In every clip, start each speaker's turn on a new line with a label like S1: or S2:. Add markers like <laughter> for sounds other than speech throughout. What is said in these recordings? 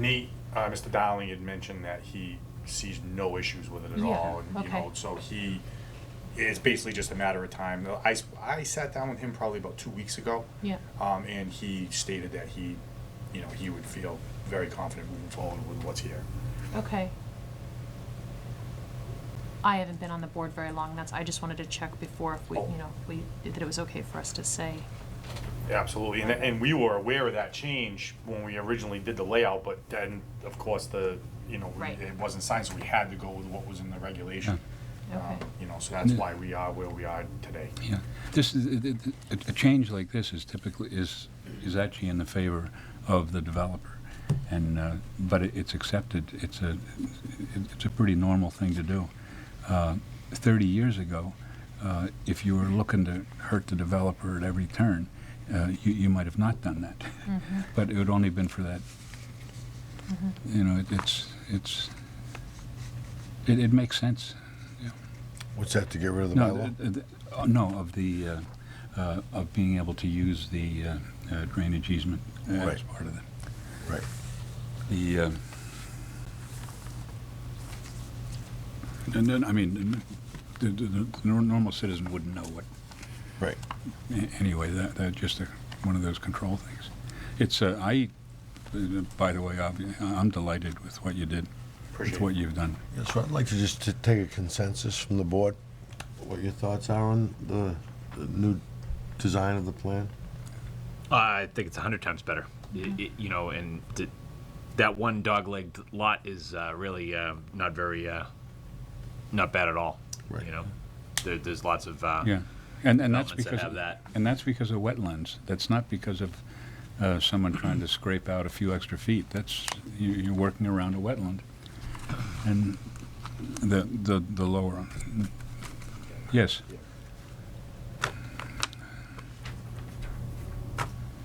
S1: Nate, uh, Mr. Dowling had mentioned that he sees no issues with it at
S2: Yeah,
S1: all, and, you
S2: okay.
S1: know, so he, it's basically just a matter of time. I, s- I sat down with him probably about two weeks ago.
S2: Yeah.
S1: Um, and he stated that he, you know, he would feel very confident moving forward with what's here.
S2: Okay. I haven't been on the board very long, that's, I just wanted to check before if we, you know, if we, that it was okay for us to say.
S1: Absolutely, and, and we were aware of that change when we originally did the layout, but then, of course, the, you know, we-
S2: Right.
S1: it wasn't signed, so we had to go with what was in the regulation.
S2: Okay.
S1: Um, You know, so that's why we are where we are today.
S3: Yeah, this is, th- th- a, a change like this is typically, is, is actually in the favor of the developer. And, uh, but it, it's accepted, it's a, it- it's a pretty normal thing to do. Uh, Thirty years ago, uh, if you were looking to hurt the developer at every turn, uh, you, you might have not done that. <laughs> But it would only been for that, you know, it- it's, it's, it, it makes sense.
S4: What's that, to get rid of the
S3: No,
S4: bylaw?
S3: th- th- uh, no, of the, uh, uh, of being able to use the uh, uh, drainage easement uh, as
S4: Right.
S3: part of the,
S4: Right.
S3: the, uh, and then, I mean, the, the- the the nor- normal citizen wouldn't know what,
S4: Right.
S3: a- anyway, that, that just a- one of those control things. It's, uh, I, uh, by the way, obvi- I'm delighted with what you did, with
S1: Appreciate
S3: what
S1: it.
S3: you've done.
S4: Yeah, so I'd like to just to take a consensus from the board, what your thoughts are on the, the new design of the plan?
S5: I think it's a hundred times better. I- I- you know, and th- that one dog-legged lot is uh, really uh, not very, uh, not bad at all.
S4: Right.
S5: You know, there, there's lots of uh,
S3: Yeah, and, and that's
S5: developments that
S3: because,
S5: have that.
S3: and that's because of wetlands. That's not because of uh, someone trying to scrape out a few extra feet. That's, you- you're working around a wetland. And the, the, the lower, yes,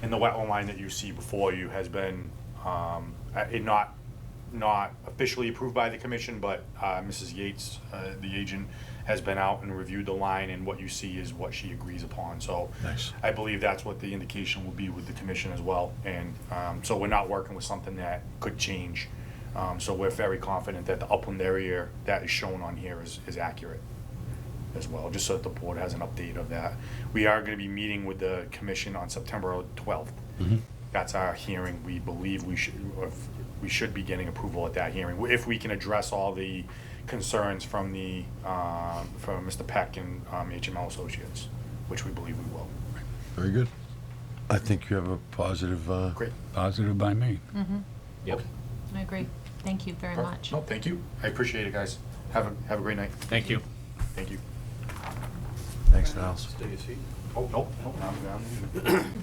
S1: And the wetland line that you see before you has been, um, uh, it not, not officially approved by the commission, but, uh, Mrs. Yates, uh, the agent, has been out and reviewed the line, and what you see is what she agrees upon, so.
S4: Nice.
S1: I believe that's what the indication will be with the commission as well, and, um, so we're not working with something that could change. Um, so we're very confident that the upland area that is shown on here is, is accurate as well, just so that the board has an update of that. We are gonna be meeting with the commission on September twelfth. That's our hearing, we believe we should, if- we should be getting approval at that hearing, if we can address all the concerns from the, um, from Mr. Peck and um, HML Associates, which we believe we will.
S4: Very good. I think you have a positive, uh,
S1: Great.
S3: positive by me.
S5: Yep.
S2: I agree, thank you very much.
S1: No, thank you, I appreciate it, guys. Have a, have a great night,
S5: Thank you.
S1: thank you.
S4: thanks, Niles.
S1: Oh, no, no, I'm, I'm.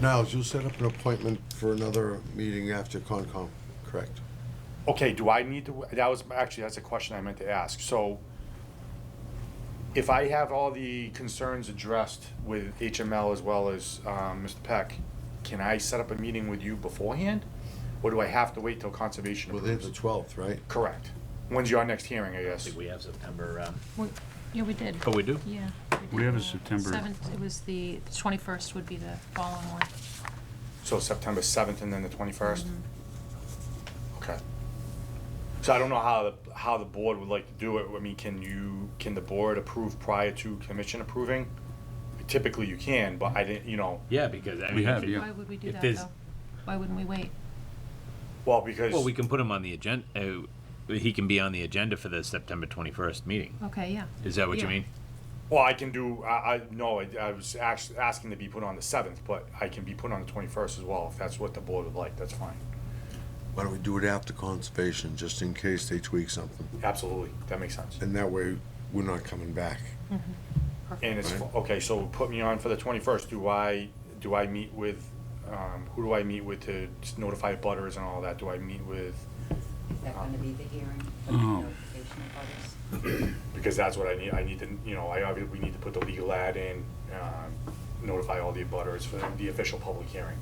S4: Niles, you'll set up an appointment for another meeting after Concom, correct?
S1: Okay, do I need to, that was, actually, that's a question I meant to ask. So if I have all the concerns addressed with HML as well as um, Mr. Peck, can I set up a meeting with you beforehand? Or do I have to wait till conservation
S4: Well, they're the
S1: approves?
S4: 12th, right?
S1: Correct. When's your next hearing, I
S5: I
S1: guess?
S5: think we have September. Um,
S2: We- Yeah, we did,
S5: oh, we do.
S2: yeah.
S3: We
S2: did
S3: have a
S2: the
S3: September-
S2: Seventh, it was the, the twenty-first would be the following one.
S1: So September 7th and then the 21st?
S5: Mm-hmm.
S1: Okay. So I don't know how, the how the board would like to do it. I mean, can you, can the board approve prior to commission approving? Typically you can, but I didn't, you know,
S5: Yeah, because I
S3: We
S5: mean,
S3: have,
S5: if it-
S3: Yeah.
S2: Why would we do
S5: If
S2: that,
S5: there's-
S2: though? Why wouldn't we wait?
S1: well, because,
S5: Well, we can put him on the agenda. Uh, he can be on the agenda for the September 21st meeting.
S2: Okay, yeah.
S5: Is that what you
S2: Yeah.
S5: mean?
S1: well, I can do, I, I, no, I, I was actually asking to be put on the seventh, but I can be put on the twenty-first as well, if that's what the board would like, that's fine.
S4: Why don't we do it after Conservation, just in case they tweak something?
S1: Absolutely, that makes sense.
S4: And that way, we're not coming back.
S1: And it's, okay, so put me on for the twenty-first, do I, do I meet with, um, who do I meet with to notify butters and all that, do I meet with?
S6: Is that gonna be the hearing?
S3: Oh.
S6: Notification of others?
S1: Because that's what I need, I need to, you know, I obviously, we need to put the legal ad in, um, notify all the butters for the official public hearing.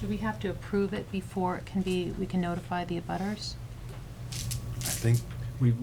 S2: Do we have to approve it before it can be, we can notify the abutters?
S4: think